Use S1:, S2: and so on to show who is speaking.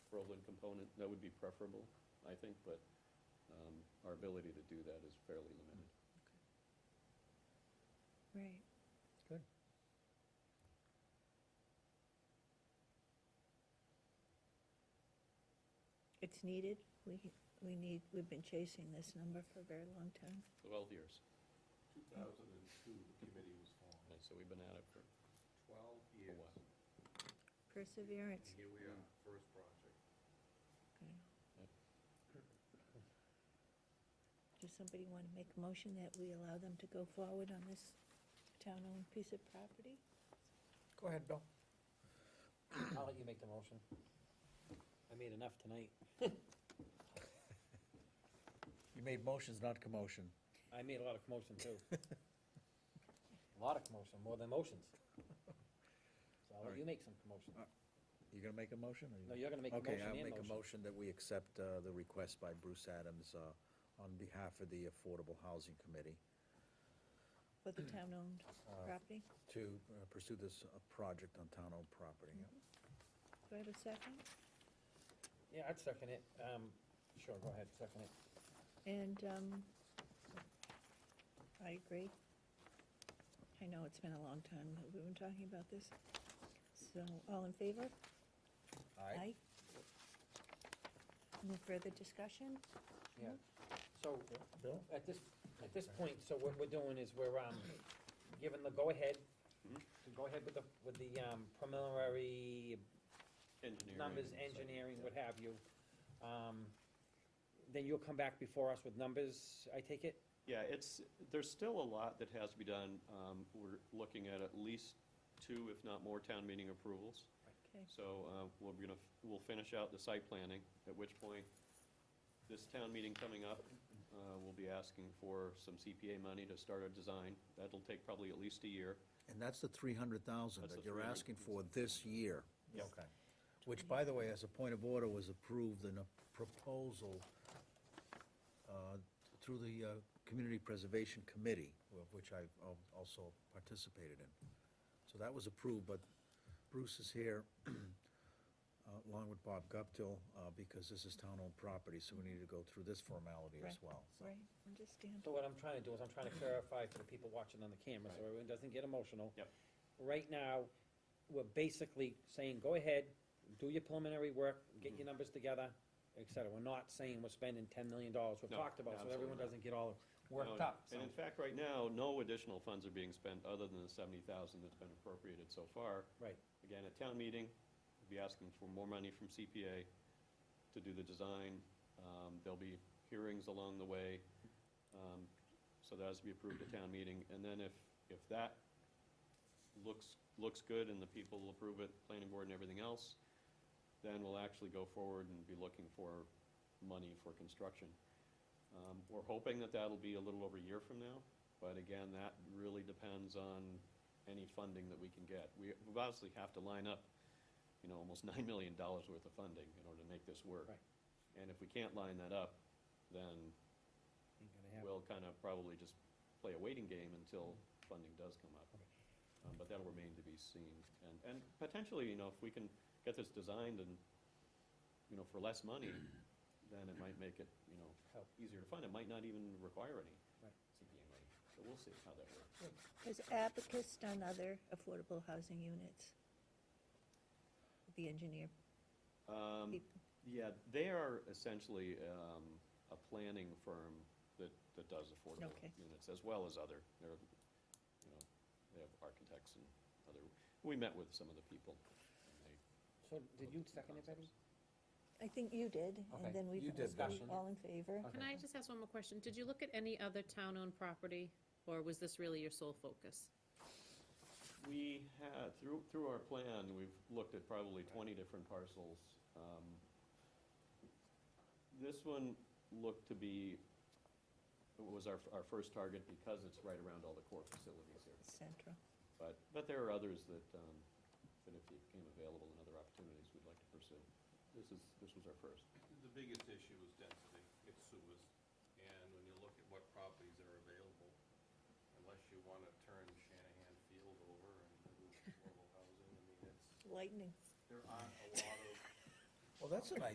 S1: Roland component, that would be preferable, I think, but um, our ability to do that is fairly limited.
S2: Right.
S3: Good.
S2: It's needed. We, we need, we've been chasing this number for a very long time.
S1: Twelve years,
S4: 2002, the committee was formed.
S1: so we've been at it for,
S4: 12 years.
S1: while.
S4: And
S2: Perseverance.
S4: here we are, first project.
S2: Okay. Does somebody want to make a motion that we allow them to go forward on this town-owned piece of property?
S3: Go ahead, Bill.
S5: I'll let you make the motion. I made enough tonight.
S3: You made motions, not commotion.
S5: I made a lot of commotion too. A lot of commotion, more than motions. So I'll let you make some commotion.
S3: You gonna make a motion? or you-
S5: No, you're gonna make a
S3: Okay,
S5: motion
S3: I'll
S5: and
S3: make a
S5: motion.
S3: motion that we accept uh, the request by Bruce Adams uh, on behalf of the Affordable Housing Committee
S2: For the town-owned property?
S3: to uh, pursue this uh, project on town-owned property.
S2: Do I have a second?
S5: Yeah, I'd second it. Um, sure, go ahead, second it.
S2: And, um, I agree. I know it's been a long time that we've been talking about this. So, all in favor? Aye. Any further discussion?
S5: Yeah. So
S3: Bill?
S5: at this, at this point, so what we're doing is we're, um, giving the go-ahead, to go ahead with the, with the, um, preliminary
S1: engineering.
S5: numbers, engineering, what have you. Um, Then you'll come back before us with numbers, I take it?
S1: Yeah, it's, there's still a lot that has to be done. Um, We're looking at at least two, if not more, town meeting approvals.
S2: Okay,
S1: So uh, we're gonna, we'll finish out the site planning, at which point, this town meeting coming up, uh, we'll be asking for some CPA money to start a design. That'll take probably at least a year.
S3: And that's the three hundred thousand
S1: That's
S3: that
S1: the
S3: you're
S1: 300,000.
S3: asking for this year.
S5: Yes.
S3: Okay. Which, by the way, as a point of order, was approved in a proposal uh, through the uh, Community Preservation Committee, of which I al- also participated in. So that was approved, but Bruce is here, uh, along with Bob Guptill, uh, because this is town-owned property, so we need to go through this formality as
S2: Right.
S3: well. so.
S2: right, understand.
S5: So what I'm trying to do is I'm trying to clarify for the people watching on the camera, so everyone doesn't get emotional.
S1: Yep.
S5: Right now, we're basically saying, go ahead, do your preliminary work, get
S1: Mm-hmm.
S5: your numbers together, et cetera. We're not saying we're spending ten million dollars, we've
S1: No,
S5: talked about, so
S1: absolutely
S5: everyone
S1: not.
S5: doesn't get all worked
S1: No,
S5: up, so.
S1: And in fact, right now, no additional funds are being spent other than the seventy thousand that's been appropriated so far.
S5: Right,
S1: Again, at town meeting, we'll be asking for more money from CPA to do the design. Um, There'll be hearings along the way, um, so that has to be approved at town meeting. And then if, if that looks, looks good and the people will approve it, planning board and everything else, then we'll actually go forward and be looking for money for construction. Um, We're hoping that that'll be a little over a year from now, but again, that really depends on any funding that we can get. We we obviously have to line up, you know, almost $9 million worth of funding in order to make this work.
S5: right.
S1: And if we can't line that up, then
S5: Ain't gonna happen.
S1: we'll kind of probably just play a waiting game until funding does come up.
S5: Okay.
S1: Um, But that'll remain to be seen. And, and potentially, you know, if we can get this designed and, you know, for less money, then it might make it, you know,
S5: Help.
S1: easier to fund. It might not even require any
S5: Right.
S1: CPA money. So we'll see how that works.
S2: Has Abacus done other affordable housing units? The engineer
S1: Um,
S2: people?
S1: Yeah, they are essentially um, a planning firm that, that does affordable
S2: Okay.
S1: units, as well as other, they're, you know, they have architects and other, we met with some of the people. and
S5: So
S1: they
S5: did you
S1: looked at the
S5: second it, Betty?
S1: concepts.
S2: I think you did,
S5: Okay,
S2: and then we,
S3: you did,
S5: Bill.
S2: all in favor?
S5: Okay.
S6: Can I just ask one more question? Did you look at any other town-owned property, or was this really your sole focus?
S1: We had, through, through our plan, we've looked at probably twenty different parcels. Um, This one looked to be, was our, our first target because it's right around all the core facilities here.
S2: Central.
S1: But, but there are others that, um, that if they became available and other opportunities, we'd like to pursue. This is, this was our first.
S4: The biggest issue is density, it's sewers. And when you look at what properties are available, unless you want to turn Shanahan Field over and do affordable housing, I mean, it's,
S2: Lightning.
S4: there aren't a lot of
S3: Well, that's a nice